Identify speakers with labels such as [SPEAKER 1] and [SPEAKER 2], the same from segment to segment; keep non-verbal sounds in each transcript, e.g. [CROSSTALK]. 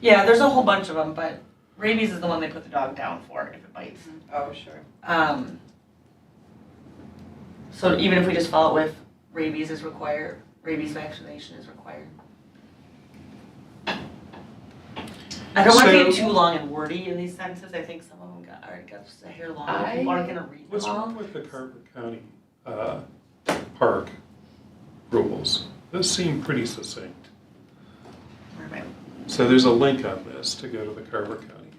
[SPEAKER 1] Yeah, there's a whole bunch of them, but rabies is the one they put the dog down for if it bites.
[SPEAKER 2] Mm-hmm.
[SPEAKER 3] Oh, sure.
[SPEAKER 1] Um, so even if we just follow it with rabies is required, rabies vaccination is required. I don't want to get
[SPEAKER 4] So-
[SPEAKER 1] too long and wordy in these sentences. I think some of them got, already got just a hair long. and People aren't gonna read them
[SPEAKER 4] What's
[SPEAKER 1] all.
[SPEAKER 4] wrong with the Carver County uh, Park rules? Those seem pretty succinct.
[SPEAKER 1] Where am I?
[SPEAKER 4] So there's a link on this to go to the Carver County.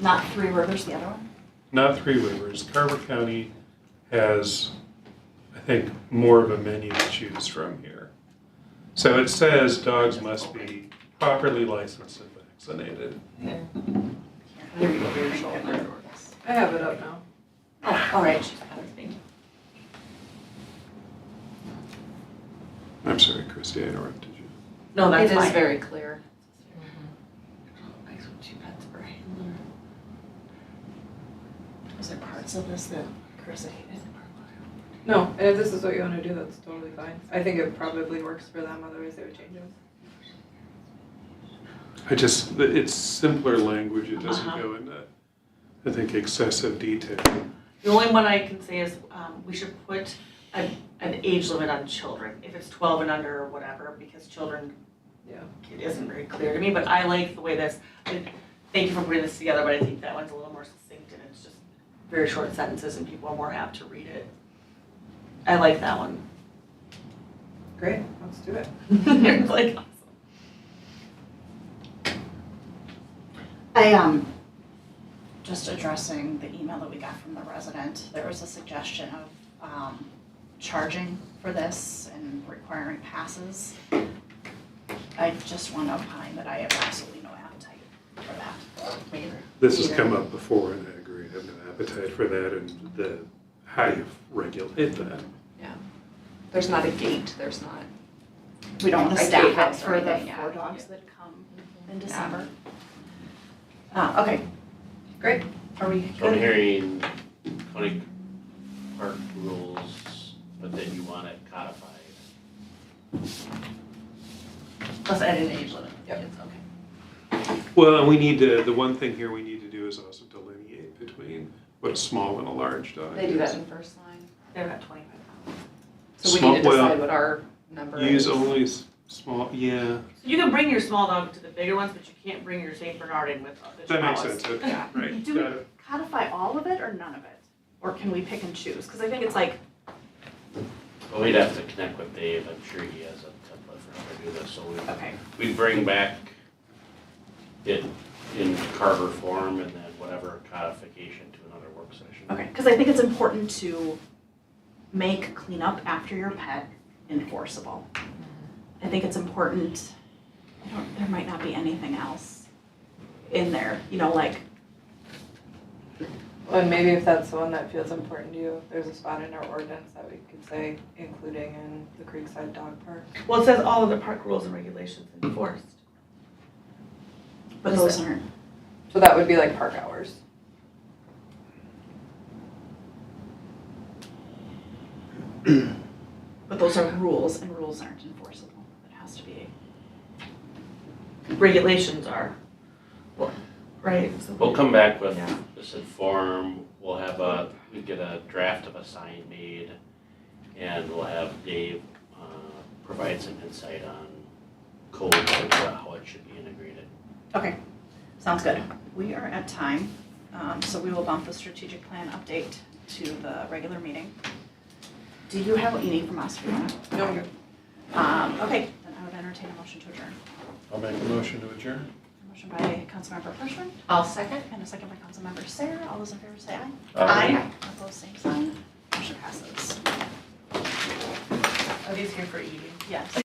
[SPEAKER 2] Not Three Rivers, the other one?
[SPEAKER 4] Not Three Rivers. Carver County has, I think, more of a menu to choose from here. So it says dogs must be properly licensed and vaccinated.
[SPEAKER 1] There you go, there's all my dogs.
[SPEAKER 3] I have it up now.
[SPEAKER 2] Oh, all right.
[SPEAKER 1] Thank you.
[SPEAKER 4] I'm sorry, Christie, I interrupted you.
[SPEAKER 1] No, that's fine.
[SPEAKER 2] It is very clear.
[SPEAKER 1] Makes two pets per handler. Is there parts of this that Carissa hated?
[SPEAKER 3] No, and if this is what you wanna do, that's totally fine. I think it probably works for them, otherwise they would change it.
[SPEAKER 4] I just, it's simpler language, it doesn't
[SPEAKER 1] Uh-huh.
[SPEAKER 4] go into, I think, excessive detail.
[SPEAKER 1] The only one I can say is, um, we should put an, an age limit on children, if it's twelve and under or whatever, because children,
[SPEAKER 3] Yeah.
[SPEAKER 1] it isn't very clear to me, but I like the way this, I- thank you for putting this together, but I think that one's a little more succinct and it's just very short sentences and people are more apt to read it. I like that one. [LAUGHS]
[SPEAKER 3] Great, let's do it.
[SPEAKER 1] It's like, awesome.
[SPEAKER 2] I, um, just addressing the email that we got from the resident, there was a suggestion of, um, charging for this and requiring passes. I just want to opine that I have absolutely no appetite for that.
[SPEAKER 4] This has come up before, and I agree, I have no appetite for that, and the, how you regulate that.
[SPEAKER 5] There's not a gate, there's not.
[SPEAKER 2] We don't want
[SPEAKER 5] I
[SPEAKER 2] to
[SPEAKER 5] gave up
[SPEAKER 2] staff out for the
[SPEAKER 5] everything, yeah.
[SPEAKER 2] four dogs that come in
[SPEAKER 5] Yeah.
[SPEAKER 2] December. Uh, okay.
[SPEAKER 3] Great.
[SPEAKER 2] Are we
[SPEAKER 6] So I'm
[SPEAKER 2] good?
[SPEAKER 6] hearing county park rules, but then you want it codified.
[SPEAKER 1] Plus add an age limit.
[SPEAKER 3] Yep.
[SPEAKER 1] It's okay.
[SPEAKER 4] Well, and we need to, the one thing here we need to do is also delineate between what a small and a large dog
[SPEAKER 5] They do that
[SPEAKER 4] is.
[SPEAKER 5] in first line.
[SPEAKER 1] They're at twenty-five.
[SPEAKER 5] So we need to
[SPEAKER 4] Small- well,
[SPEAKER 5] decide what our number is.
[SPEAKER 4] Use only s- small, yeah,
[SPEAKER 1] So you can bring your small dog to the bigger ones, but you can't bring your Saint Bernard in with the
[SPEAKER 4] that makes
[SPEAKER 1] chihuahuas.
[SPEAKER 4] sense, okay,
[SPEAKER 5] Yeah.
[SPEAKER 4] right,
[SPEAKER 2] Do
[SPEAKER 4] got
[SPEAKER 2] we
[SPEAKER 4] it.
[SPEAKER 2] codify all of it or none of it? Or can we pick and choose? Because I think it's like,
[SPEAKER 6] But we'd have to connect with Dave, I'm sure he has a template for how to do this, so we,
[SPEAKER 2] okay,
[SPEAKER 6] we'd bring back it in Carver form and then whatever codification to another work session.
[SPEAKER 2] okay. Because I think it's important to make cleanup after your pet enforceable. I think it's important, I don't, there might not be anything else in there, you know, like,
[SPEAKER 3] Well, and maybe if that's the one that feels important to you, there's a spot in our ordinance that we could say, including in the Creekside Dog Park.
[SPEAKER 1] Well, it says all of the park rules and regulations enforced.
[SPEAKER 2] but those aren't,
[SPEAKER 3] So that would be like park hours.
[SPEAKER 2] but those are rules and rules aren't enforceable. It has to be,
[SPEAKER 1] Regulations are, well, right, so.
[SPEAKER 6] We'll come back with
[SPEAKER 1] Yeah.
[SPEAKER 6] this in form, we'll have a, we get a draft of a sign made, and we'll have Dave, uh, provide some insight on code or how it should be integrated.
[SPEAKER 2] sounds good. We are at time, um, so we will bump the strategic plan update to the regular meeting. Do you have what you need from us, Fiona?
[SPEAKER 3] No, you're
[SPEAKER 2] Um, okay, then I would entertain a motion to adjourn.
[SPEAKER 4] I'll make a motion to adjourn.
[SPEAKER 2] Motion by Councilmember Frischman
[SPEAKER 5] I'll second.
[SPEAKER 2] and a second by Councilmember Sarah. All those in favor say aye.
[SPEAKER 1] Aye.
[SPEAKER 2] Opposed, same sign. Motion passes.
[SPEAKER 1] Are these here for eating?
[SPEAKER 2] Yes.